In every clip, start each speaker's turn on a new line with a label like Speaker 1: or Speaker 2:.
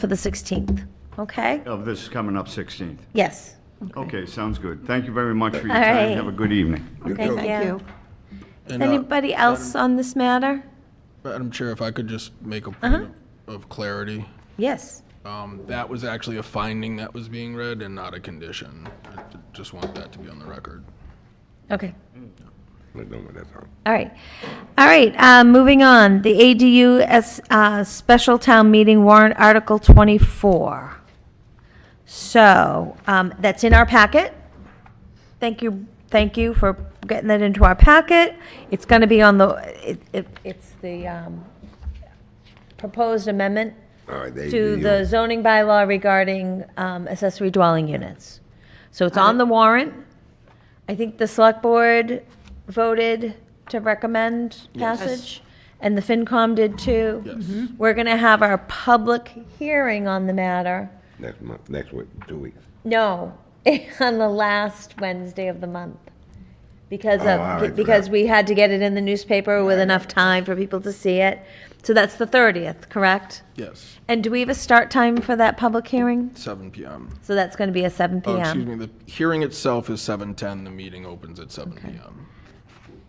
Speaker 1: for the 16th, okay?
Speaker 2: Of Oh, this coming up 16th.
Speaker 1: Yes.
Speaker 2: Okay, sounds good. Thank you very much for your
Speaker 1: All
Speaker 2: time.
Speaker 1: right.
Speaker 2: Have a good evening.
Speaker 1: Okay,
Speaker 3: too.
Speaker 1: yeah.
Speaker 4: Thank you.
Speaker 3: And, uh,
Speaker 1: Anybody else on this matter?
Speaker 3: Madam Chair, if I could just make a point of clarity.
Speaker 1: Yes.
Speaker 3: Um, That was actually a finding that was being read and not a condition. I ju- Just want that to be on the record.
Speaker 1: Okay.
Speaker 5: We're done with that, huh?
Speaker 1: All right. All right, uh, moving on. The ADU as, uh, special town meeting warrant article 24. So, um, that's in our packet. Thank you, thank you for getting that into our packet. It's gonna be on the, it, it, it's the, um, proposed amendment
Speaker 5: All right, they,
Speaker 1: to
Speaker 5: you-
Speaker 1: the zoning bylaw regarding um, accessory dwelling units. So it's on the warrant. I think the select board voted to recommend passage, and the FinCom did too.
Speaker 5: Mm-hmm.
Speaker 3: Yes.
Speaker 1: We're going to have our public hearing on the matter.
Speaker 5: next month, next week, two weeks.
Speaker 1: No, on the last Wednesday of the month. Because
Speaker 5: Oh, all
Speaker 1: of,
Speaker 5: right,
Speaker 1: because
Speaker 5: correct.
Speaker 1: we had to get it in the newspaper with enough time for people to see it. So that's the 30th, correct?
Speaker 3: Yes,
Speaker 1: And do we have a start time for that public hearing?
Speaker 3: seven PM.
Speaker 1: So that's going to be a seven
Speaker 3: Oh, excuse
Speaker 1: PM.
Speaker 3: me, the hearing itself is 7:10, the meeting opens at seven PM.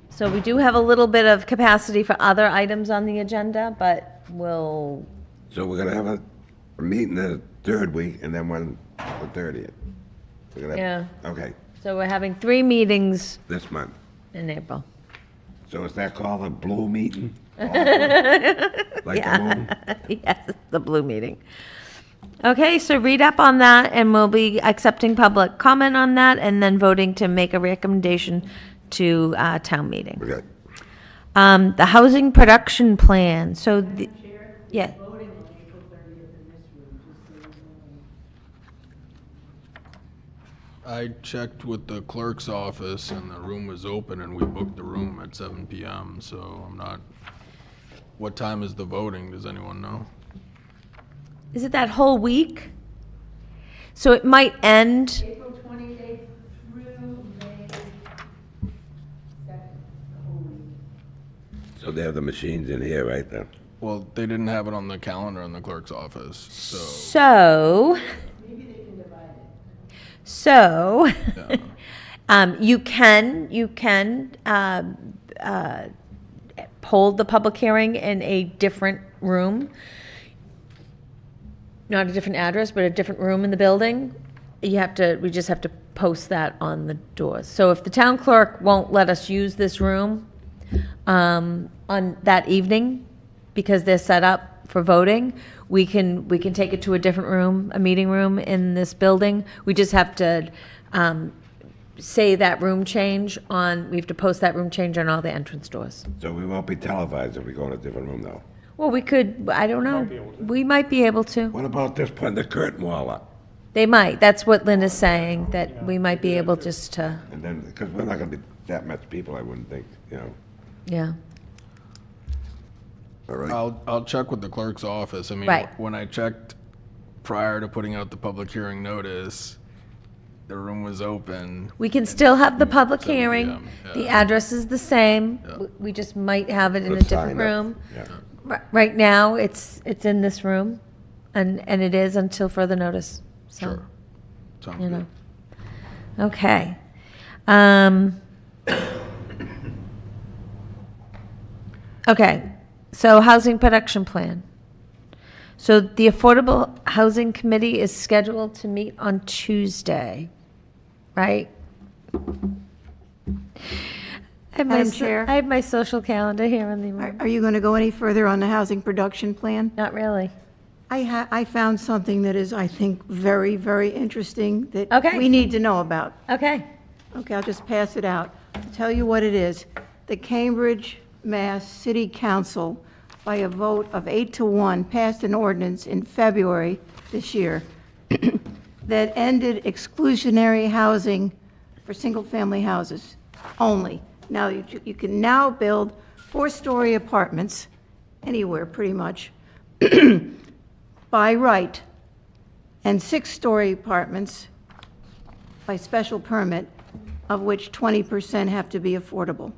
Speaker 1: So we do have a little bit of capacity for other items on the agenda, but we'll,
Speaker 5: So we're gonna have a, a meeting the third week and then one the thirtieth.
Speaker 1: Yeah.
Speaker 5: Okay,
Speaker 1: so we're having three meetings
Speaker 5: this month.
Speaker 1: in April.
Speaker 5: So is that called a blue meeting? Like the moon?
Speaker 1: Yes, the blue meeting. Okay, so read up on that and we'll be accepting public comment on that and then voting to make a recommendation to uh, town meeting.
Speaker 5: Okay.
Speaker 1: Um, The housing production plan, so, the- yeah.
Speaker 3: I checked with the clerk's office and the room was open and we booked the room at seven PM, so I'm not, what time is the voting? Does anyone know?
Speaker 1: Is it that whole week? So it might end.
Speaker 6: April 28th through May 2nd, the whole week.
Speaker 5: So they have the machines in here, right then?
Speaker 3: Well, they didn't have it on the calendar in the clerk's office, so.
Speaker 1: So. So, um, you can, you can, um, uh, hold the public hearing in a different room. Not a different address, but a different room in the building. You have to, we just have to post that on the doors. So if the town clerk won't let us use this room, um, on that evening, because they're set up for voting, we can, we can take it to a different room, a meeting room in this building. We just have to, um, say that room change on, we have to post that room change on all the entrance doors.
Speaker 5: So we won't be televised if we go in a different room though.
Speaker 1: Well, we could, I don't know. We might be able to.
Speaker 5: What about this putting the curtain wall up?
Speaker 1: They might. That's what Lynn is saying, that we might be able just to,
Speaker 5: And then, because we're not gonna be that much people, I wouldn't think, you know.
Speaker 1: yeah.
Speaker 5: All right.
Speaker 3: I'll, I'll check with the clerk's office. I mean,
Speaker 1: Right.
Speaker 3: when I checked prior to putting out the public hearing notice, the room was open.
Speaker 1: We can still have the public
Speaker 3: Seven
Speaker 1: hearing.
Speaker 3: PM,
Speaker 1: The
Speaker 3: yeah.
Speaker 1: address is the same. We- We just might have it in a different room. Ri- Right now, it's, it's in this room, and, and it is until further notice, so.
Speaker 3: Sure. Sounds
Speaker 1: you
Speaker 3: good.
Speaker 1: know. Okay. Um, okay. So housing production plan. So the Affordable Housing Committee is scheduled to meet on Tuesday, right? I have my
Speaker 4: Madam
Speaker 1: so-
Speaker 4: Chair?
Speaker 1: I have my social calendar here in the
Speaker 4: Are
Speaker 1: room.
Speaker 4: are you going to go any further on the housing production plan?
Speaker 1: Not really.
Speaker 4: I ha, I found something that is, I think, very, very interesting that
Speaker 1: Okay.
Speaker 4: we need to know about.
Speaker 1: Okay.
Speaker 4: Okay, I'll just pass it out. I'll Tell you what it is. The Cambridge, Mass. City Council, by a vote of eight to one, passed an ordinance in February this year that ended exclusionary housing for single-family houses only. Now, you you can now build four-story apartments anywhere, pretty much, by right, and six-story apartments by special permit, of which 20% have to be affordable.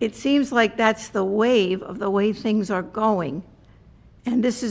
Speaker 4: It seems like that's the wave of the way things are going, and this is